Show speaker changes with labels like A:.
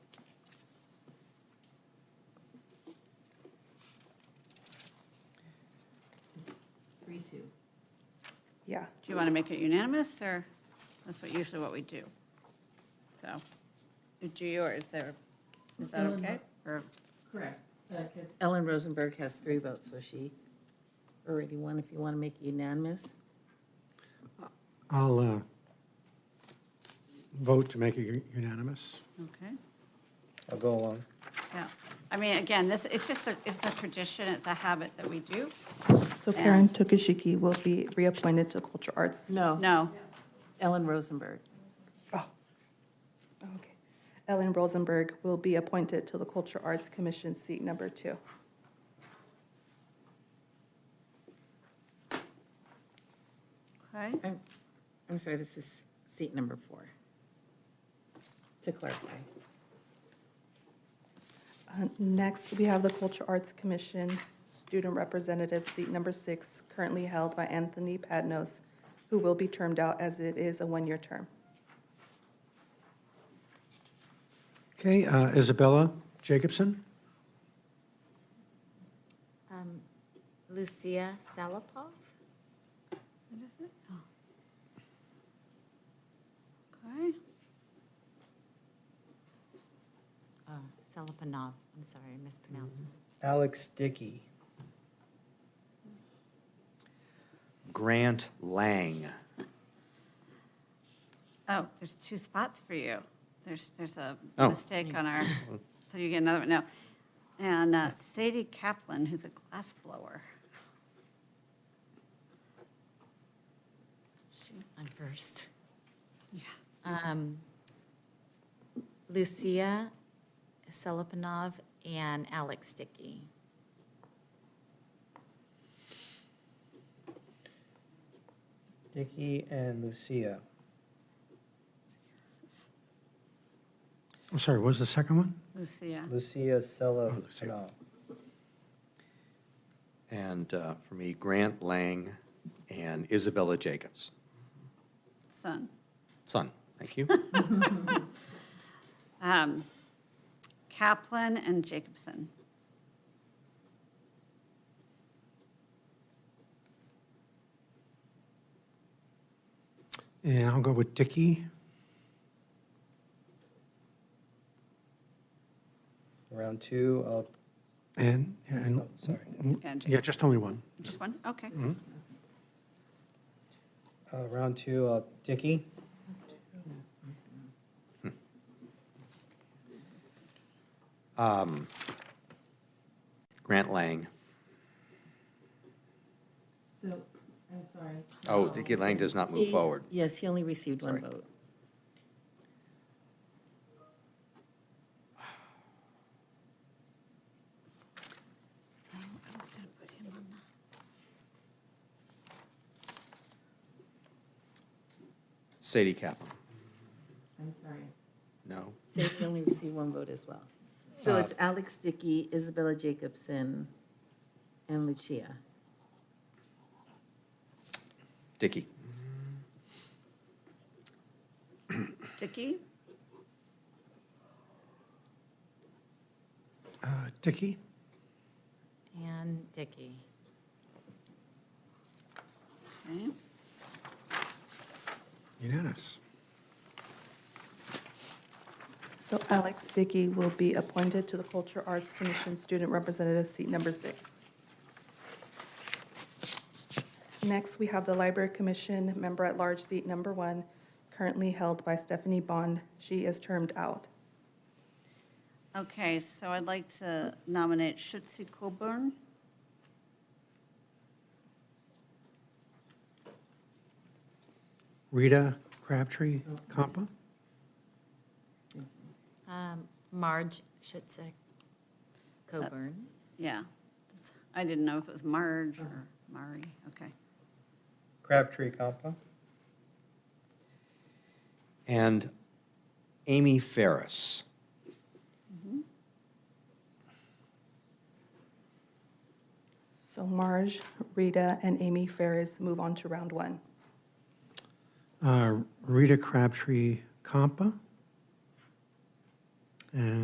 A: two.
B: Yeah.
C: Do you want to make it unanimous, or that's what, usually what we do? So, do you, or is there, is that
A: Ellen,
C: okay? Or,
A: Correct.
D: Uh,
A: Because
D: Ellen Rosenberg has three votes, so she already won. If you want to make it unanimous,
E: I'll uh, vote to make it u- unanimous.
C: okay,
F: I'll go along.
C: yeah. I mean, again, this, it's just, a it's a tradition, it's a habit that we do.
B: So Karen Tokashiki will be reappointed to Culture Arts.
D: no.
C: No,
D: Ellen Rosenberg.
B: Oh, okay. Ellen Rosenberg will be appointed to the Culture Arts Commission seat number two.
C: okay,
D: I'm, I'm sorry, this is seat number four. To clarify.
B: Uh, Next, we have the Culture Arts Commission Student Representative, seat number six, currently held by Anthony Padnos, who will be termed out as it is a one-year term.
E: Okay, uh, Isabella Jacobson?
G: Um, Lucia Salapov?
C: okay.
G: Oh, Salapanov, I'm sorry, I mispronounced it.
F: Alex Dickey.
H: Grant Lang.
C: Oh, there's two spots for you. There's, there's a
H: Oh.
C: mistake on our, so you get another one, no. And uh, Sadie Kaplan, who's a glass blower.
G: Shoot, I'm first.
C: Yeah.
G: Um, Lucia Salapanov and Alex Dickey.
F: Dickey and Lucia.
E: I'm sorry, what was the second one?
C: Lucia.
F: Lucia
E: Oh, Lucia.
F: Sella.
H: And uh, for me, Grant Lang and Isabella Jacobs.
C: son.
H: Son, thank you.
C: Um, Kaplan and Jacobson.
E: And I'll go with Dickey.
F: Round two, I'll,
E: And, and,
F: oh, sorry.
C: And
E: yeah, just only one.
C: Just one? Okay.
F: Uh, Round two, I'll Dickey.
H: Um, Grant Lang.
A: So, I'm sorry.
H: Oh, Dicky Lang does not move forward.
D: Yes, he only received one
H: Sorry.
D: vote.
C: I was gonna put him on the-
H: Sadie Kaplan.
A: I'm sorry.
H: No.
D: So he only received one vote as well.
H: Uh,
D: So it's Alex Dickey, Isabella Jacobson, and Lucia.
H: Dickey.
C: Dickey,
E: Uh, Dickey?
G: And Dickey.
C: okay.
E: Unanimous.
B: So Alex Dickey will be appointed to the Culture Arts Commission Student Representative, seat number six. Next, we have the Library Commission Member at Large, seat number one, currently held by Stephanie Bond. She is termed out.
C: Okay, so I'd like to nominate Schutzi Coburn.
E: Rita Crabtree Compa?
G: Um, Marge Schutzik Coburn.
C: Yeah. I didn't know if it was Marge or Mari, okay.
F: Crabtree Compa.
H: And Amy Ferris.
B: So Marge, Rita, and Amy Ferris move on to round one.
E: Uh, Rita Crabtree Compa? And